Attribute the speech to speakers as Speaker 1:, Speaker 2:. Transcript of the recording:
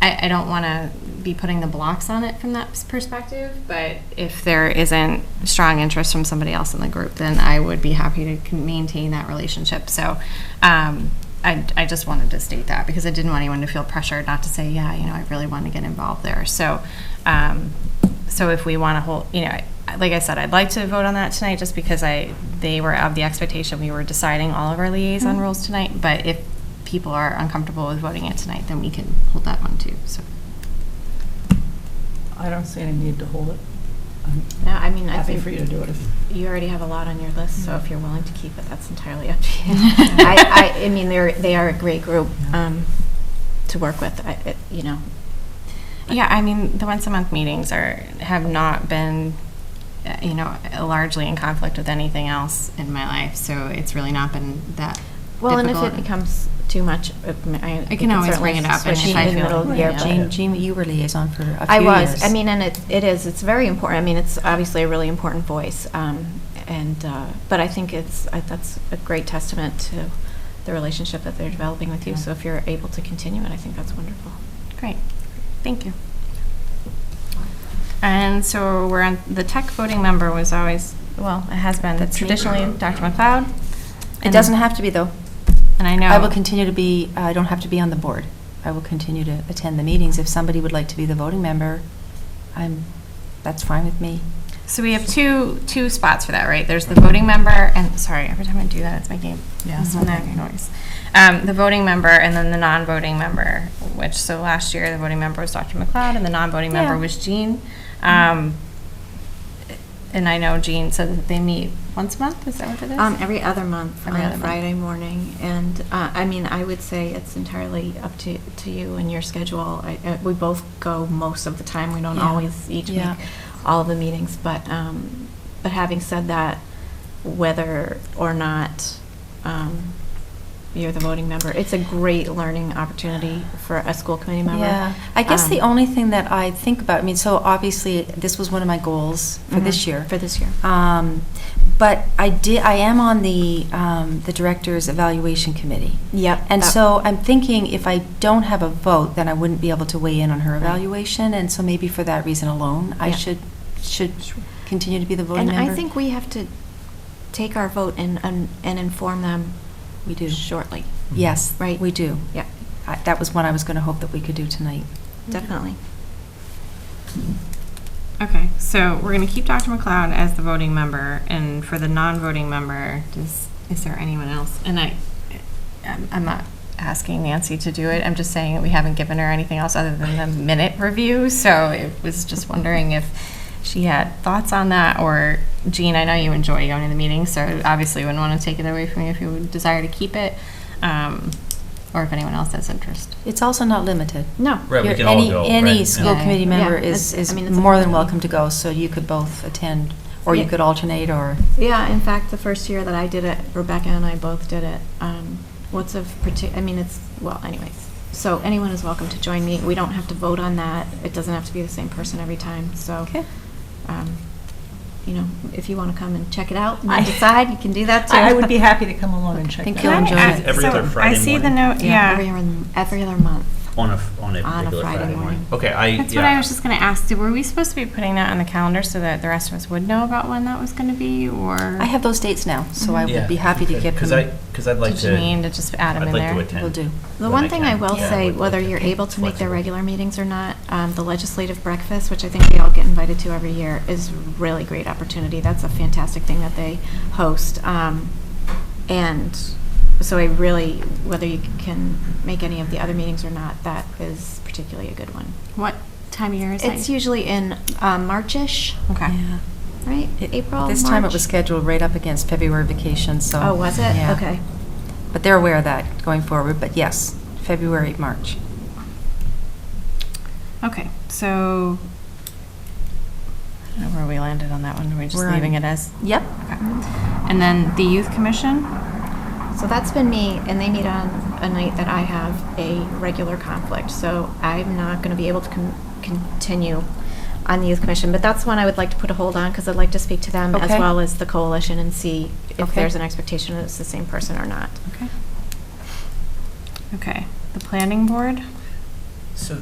Speaker 1: I, I don't want to be putting the blocks on it from that s- perspective, but if there isn't strong interest from somebody else in the group, then I would be happy to con- maintain that relationship. So um, I, I just wanted to state that because I didn't want anyone to feel pressured not to say, yeah, you know, I really want to get involved there. So, um, so if we want to hold, you know, I- like I said, I'd like to vote on that tonight just because I, they were of the expectation we were deciding all of our liaison rules tonight, but if people are uncomfortable with voting it tonight, then we can hold that one too, so.
Speaker 2: I don't see any need to hold it.
Speaker 3: No, I mean,
Speaker 2: I'm
Speaker 3: I
Speaker 2: happy
Speaker 3: think
Speaker 2: for you to do it if, Mm-hmm.
Speaker 3: you already have a lot on your list, so if you're willing to keep it, that's entirely up to you. I,
Speaker 1: I-
Speaker 3: I, I mean, they're, they are a great group,
Speaker 2: Yeah.
Speaker 3: um, to work with, I, it- you know.
Speaker 1: Yeah, I mean, the once a month meetings are, have not been, uh, you know, largely in conflict with anything else in my life, so it's really not been that
Speaker 3: Well, and if
Speaker 1: difficult.
Speaker 3: it becomes too much, uh, m- I. we
Speaker 1: can always
Speaker 3: certainly
Speaker 1: bring it up and
Speaker 3: switch
Speaker 1: if I
Speaker 3: in the
Speaker 1: feel-
Speaker 3: middle of the year,
Speaker 2: Right.
Speaker 3: but-
Speaker 4: Jean, Jean, you were liaison for a few years.
Speaker 3: I was. I mean, and it, it is. It's very important. I mean, it's obviously a really important voice. Um, and uh, but I think it's I, that's a great testament to the relationship that they're developing with you.
Speaker 2: Yeah.
Speaker 3: So if you're able to continue it, I think that's wonderful.
Speaker 1: Great, thank you. And so we're on, the tech voting member was always, well, it has been
Speaker 4: That's me.
Speaker 1: traditionally Dr. McLeod.
Speaker 4: It doesn't have to be, though.
Speaker 1: And I know.
Speaker 4: I will continue to be, uh, I don't have to be on the board. I will continue to attend the meetings. If somebody would like to be the voting member, I'm, that's fine with me.
Speaker 1: So we have two, two spots for that, right? There's the voting member, and, sorry, every time I do that, it's making,
Speaker 2: Yeah.
Speaker 1: it's making noise. Um, the voting member and then the non-voting member, which, so last year, the voting member was Dr. McLeod and the non-voting member
Speaker 4: Yeah.
Speaker 1: was Jean. Um, and I know Jean said that they meet once a month, is that what it is?
Speaker 3: Um, every other month
Speaker 1: Every
Speaker 3: on
Speaker 1: other month.
Speaker 3: Friday morning, and uh, I mean, I would say it's entirely up to, to you and your schedule. I, uh, we both go most of the time. We don't
Speaker 4: Yeah.
Speaker 3: always each
Speaker 4: Yeah.
Speaker 3: make all of the meetings, but um, but having said that, whether or not um, you're the voting member, it's a great learning opportunity for a school committee member.
Speaker 4: Yeah, I guess the
Speaker 3: Um,
Speaker 4: only thing that I think about, I mean, so obviously, this was one of my goals for
Speaker 3: Mhm,
Speaker 4: this year.
Speaker 3: for this year.
Speaker 4: Um, But I did, I am on the, um, the Director's Evaluation Committee.
Speaker 3: Yep,
Speaker 4: And
Speaker 3: that-
Speaker 4: so I'm thinking if I don't have a vote, then I wouldn't be able to weigh in on her
Speaker 3: Right.
Speaker 4: evaluation, and so maybe for that reason alone, I
Speaker 3: Yeah.
Speaker 4: should, should continue to be the voting
Speaker 3: and
Speaker 4: member.
Speaker 3: I think we have to take our vote and and, and inform them
Speaker 4: We do.
Speaker 3: shortly.
Speaker 4: Yes.
Speaker 3: Right.
Speaker 4: We do.
Speaker 3: Yeah,
Speaker 4: I- That was one I was going to hope that we could do tonight.
Speaker 3: definitely.
Speaker 1: Okay, so we're gonna keep Dr. McLeod as the voting member, and for the non-voting member, does, is there anyone else? And I, I'm, I'm not asking Nancy to do it, I'm just saying that we haven't given her anything else other than the minute review, so it was just wondering if she had thoughts on that, or Jean, I know you enjoy going to the meetings, so obviously wouldn't wanna take it away from you if you would desire to keep it, um, or if anyone else has interest.
Speaker 4: It's also not limited.
Speaker 3: No.
Speaker 5: Right, we
Speaker 4: Your-
Speaker 5: can all
Speaker 4: any-
Speaker 5: go,
Speaker 4: Any
Speaker 5: right,
Speaker 4: school
Speaker 1: yeah.
Speaker 4: committee
Speaker 1: Yeah,
Speaker 4: member
Speaker 3: it's-
Speaker 4: is, is
Speaker 3: I mean, it's a
Speaker 4: more than
Speaker 3: possibility.
Speaker 4: welcome to go, so you could both attend, or you
Speaker 3: Yeah.
Speaker 4: could alternate, or,
Speaker 3: Yeah, in fact, the first year that I did it, Rebecca and I both did it. Um, What's of parti, I mean, it's, well, anyways. So anyone is welcome to join me. We don't have to vote on that. It doesn't have to be the same person every time, so.
Speaker 4: Okay.
Speaker 3: um, You know, if you want to come and check it out
Speaker 2: I-
Speaker 3: and decide, you can do that too.
Speaker 2: I I would be happy to come along and check
Speaker 4: Think
Speaker 2: that
Speaker 4: you'll
Speaker 2: out.
Speaker 1: Can I
Speaker 4: enjoy
Speaker 1: ask-
Speaker 4: it.
Speaker 5: Every
Speaker 1: so
Speaker 5: other Friday
Speaker 1: I see the
Speaker 5: morning?
Speaker 1: note, yeah.
Speaker 3: Every other, every other month.
Speaker 5: On a, f- on a
Speaker 3: On a
Speaker 5: particular
Speaker 3: Friday
Speaker 5: Friday morning.
Speaker 3: morning.
Speaker 5: Okay, I, yeah.
Speaker 1: That's what I was just going to ask. Did- Were we supposed to be putting that on the calendar so that the rest of us would know about when that was going to be, or?
Speaker 4: I have those dates now, so I
Speaker 5: Yeah,
Speaker 4: would be happy to
Speaker 5: okay,
Speaker 4: get them.
Speaker 5: Cause I, cause I'd like
Speaker 1: Did
Speaker 5: to.
Speaker 1: you mean to just add 'em in there?
Speaker 5: I'd like to attend.
Speaker 4: Will do.
Speaker 3: The
Speaker 5: when
Speaker 3: one thing I
Speaker 5: can.
Speaker 3: will
Speaker 5: Yeah,
Speaker 3: say,
Speaker 5: would like
Speaker 3: whether
Speaker 5: to
Speaker 3: you're
Speaker 5: be
Speaker 3: able to make their
Speaker 5: flexible.
Speaker 3: regular meetings or not, um, the legislative breakfast, which I think we all get invited to every year, is really great opportunity. That's a fantastic thing that they host. Um, And so I really, whether you can make any of the other meetings or not, that is particularly a good one.
Speaker 1: What time of year is it?
Speaker 3: It's usually in um, Marchish,
Speaker 1: Okay.
Speaker 4: Yeah.
Speaker 3: right?
Speaker 4: It-
Speaker 3: April,
Speaker 4: This time it was
Speaker 3: March?
Speaker 4: scheduled right up against February vacation, so.
Speaker 3: Oh, was it?
Speaker 4: yeah.
Speaker 3: Okay.
Speaker 4: But they're aware of that going forward, but yes, February, March.
Speaker 1: Okay, so, I don't know where we landed on that one. Are we just
Speaker 4: We're on-
Speaker 1: leaving it as?
Speaker 4: Yep.
Speaker 1: Okay. And then the youth commission?
Speaker 3: So that's been me, and they meet on a night that I have a regular conflict, so I'm not going to be able to con- continue on the youth commission, but that's one I would like to put a hold on, because I'd like to speak to them as
Speaker 4: Okay.
Speaker 3: well as the coalition and see if
Speaker 4: Okay.
Speaker 3: there's an expectation that it's the same person or not.
Speaker 1: Okay. Okay, the planning board?
Speaker 5: So